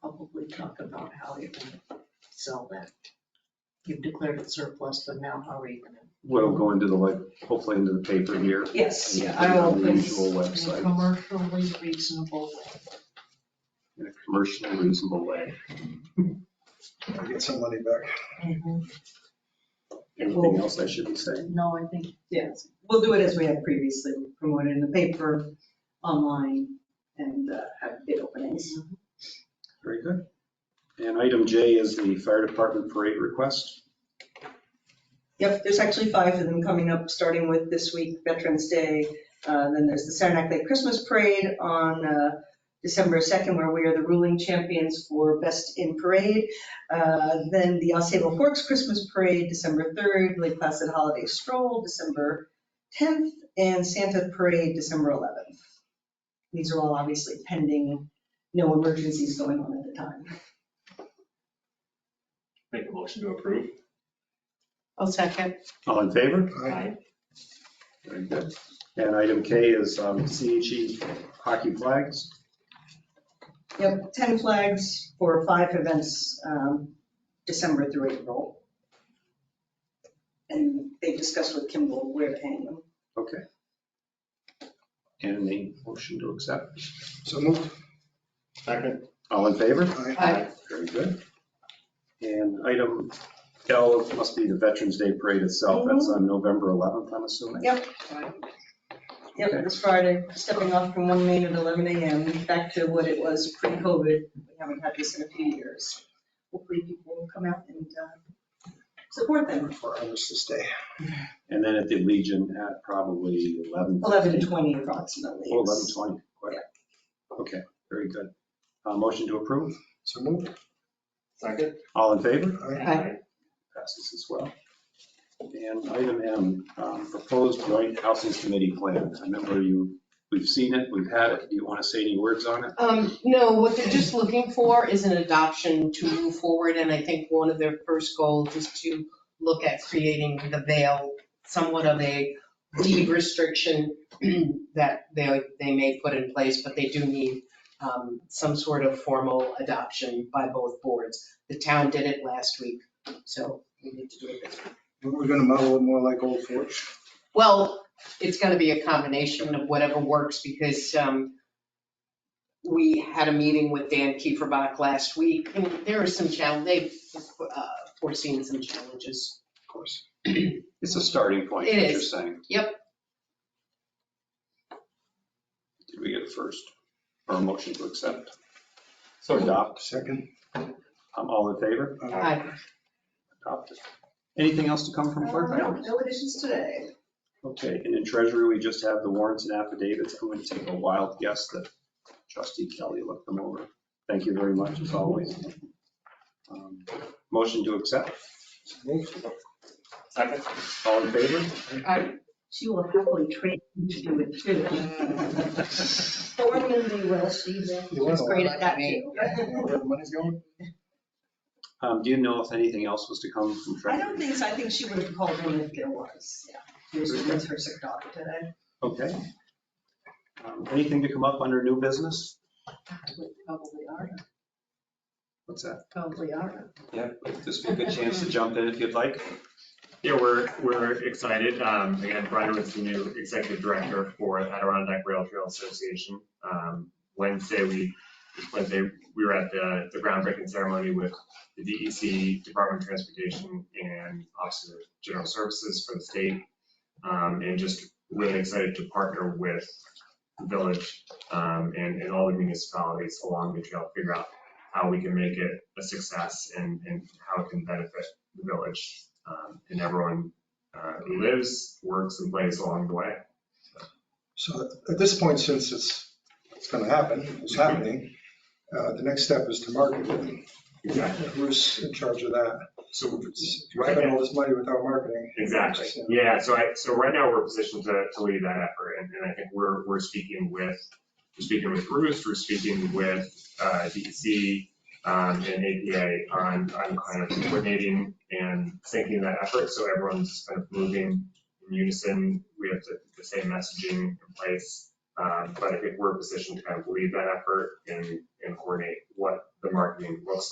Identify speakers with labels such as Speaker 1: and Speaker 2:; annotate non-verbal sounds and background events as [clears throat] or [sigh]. Speaker 1: probably talk about how you're gonna sell that. You've declared it surplus, but now how are you gonna?
Speaker 2: What'll go into the, like, hopefully into the paper here.
Speaker 1: Yes,
Speaker 2: and
Speaker 1: I
Speaker 2: put it
Speaker 1: will.
Speaker 2: on The usual
Speaker 1: In a
Speaker 2: website,
Speaker 1: commercially reasonable way.
Speaker 2: in a commercially reasonable way.
Speaker 3: Get some money back.
Speaker 2: Anything else I should be saying?
Speaker 1: No, I think, yes,
Speaker 4: We'll do it as we have previously, We'll promote it in the paper, online, and uh, have bid openings.
Speaker 2: Very good. And item J is the fire department parade request.
Speaker 4: Yep, there's actually five of them coming up, starting with this week, Veterans Day. Uh, Then there's the Saranac Lake Christmas Parade on uh, December 2nd, where we are the ruling champions for Best in Parade. Uh, Then the Osceola Forks Christmas Parade, December 3rd, Lake Placid Holiday Stroll, December 10th, and Santa Parade, December 11th. These are all obviously pending, no emergencies going on at the time.
Speaker 5: Make a motion to approve.
Speaker 1: I'll second.
Speaker 2: All in favor?
Speaker 3: Aye.
Speaker 2: Very good. And item K is um, CHE hockey flags.
Speaker 4: Yep, 10 flags for five events, um, December through April. And they discussed with Kimball where to hang them.
Speaker 2: Okay. And a motion to accept.
Speaker 3: So moved.
Speaker 5: Second.
Speaker 2: All in favor?
Speaker 3: Aye.
Speaker 1: Aye.
Speaker 2: Very good. And item L must be the Veterans Day Parade itself. That's on November 11th, I'm assuming.
Speaker 4: Yep. Yep, this Friday, stepping off from one main at 11 a.m., back to what it was pre-COVID. We haven't had this in a few years. Hopefully people will come out and uh, support them.
Speaker 3: For hours to stay.
Speaker 2: And then at the Legion at probably 11.
Speaker 4: 11:20 approximately.
Speaker 2: Oh, 11:20, quite. Okay, very good. Uh, Motion to approve.
Speaker 3: So moved.
Speaker 5: Second.
Speaker 2: All in favor?
Speaker 3: Aye.
Speaker 1: Aye.
Speaker 2: Passes as well. And item M, um, proposed joint housing committee plan. I remember you, we've seen it, we've had it. Do you want to say any words on it?
Speaker 6: Um, no, what they're just looking for is an adoption to move forward, and I think one of their first goals is to look at creating the veil, somewhat of a deed restriction [clears throat] that they, they may put in place, but they do need, um, some sort of formal adoption by both boards. The town did it last week, so we need to do it this week.
Speaker 3: We're gonna model it more like Old Forge.
Speaker 6: Well, it's gonna be a combination of whatever works because um, we had a meeting with Dan Kieferbach last week and there are some challenge, they've uh, foreseen some challenges.
Speaker 2: Of course. It's a starting point,
Speaker 6: It
Speaker 2: what you're
Speaker 6: is.
Speaker 2: saying.
Speaker 6: Yep.
Speaker 2: Did we get a first or a motion to accept?
Speaker 5: So moved.
Speaker 2: Adopt.
Speaker 3: Second.
Speaker 2: I'm all in favor?
Speaker 3: Aye.
Speaker 2: Adopted. Anything else to come from clerk?
Speaker 4: No, no additions today.
Speaker 2: Okay, and in treasury, we just have the warrants and affidavits. I'm going to take a wild guess that trustee Kelly looked them over. Thank you very much, as always. Um, Motion to accept.
Speaker 3: So moved.
Speaker 5: Second.
Speaker 2: All in
Speaker 4: [laughs]
Speaker 2: favor?
Speaker 1: She will happily train you to do it too.
Speaker 2: [laughs]
Speaker 1: Formerly, well, she
Speaker 3: You went
Speaker 1: was
Speaker 3: a
Speaker 1: great
Speaker 3: lot
Speaker 1: at that
Speaker 3: like
Speaker 1: too.
Speaker 3: Where the money's going?
Speaker 2: Um, Do you know if anything else was to come from
Speaker 4: I
Speaker 2: treasury?
Speaker 4: don't think so. I think she would have called in if there was. Yeah. She was with her sick dog today.
Speaker 2: Okay. Um, Anything to come up under new business?
Speaker 1: Probably are,
Speaker 2: What's that?
Speaker 1: probably are.
Speaker 2: Yeah, this would be a good chance to jump in if you'd like.
Speaker 5: Yeah, we're, we're excited. Um, again, Brian was the new executive director for Adirondack Rail Trail Association. Um, Wednesday, we, this Wednesday, we were at the, the groundbreaking ceremony with the DEC, Department of Transportation, and Office of General Services for the state. Um, and just really excited to partner with the village, um, and, and all the municipalities along the trail, figure out how we can make it a success and, and how it can benefit the village um, and everyone uh, who lives, works, and plays along the way.
Speaker 3: So at this point, since it's, it's gonna happen, it's happening, uh, the next step is to market it. Who's in charge of that?
Speaker 5: So,
Speaker 3: Wiping all this money without marketing.
Speaker 5: exactly. Yeah, so I, so right now, we're positioned to, to lead that effort, and, and I think we're, we're speaking with, we're speaking with Roost, we're speaking with uh, DEC um, and APA on, on kind of coordinating and syncing that effort, so everyone's kind of moving in unison, we have the, the same messaging in place. Um, But I think we're positioned to kind of lead that effort and, and coordinate what the market marketing looks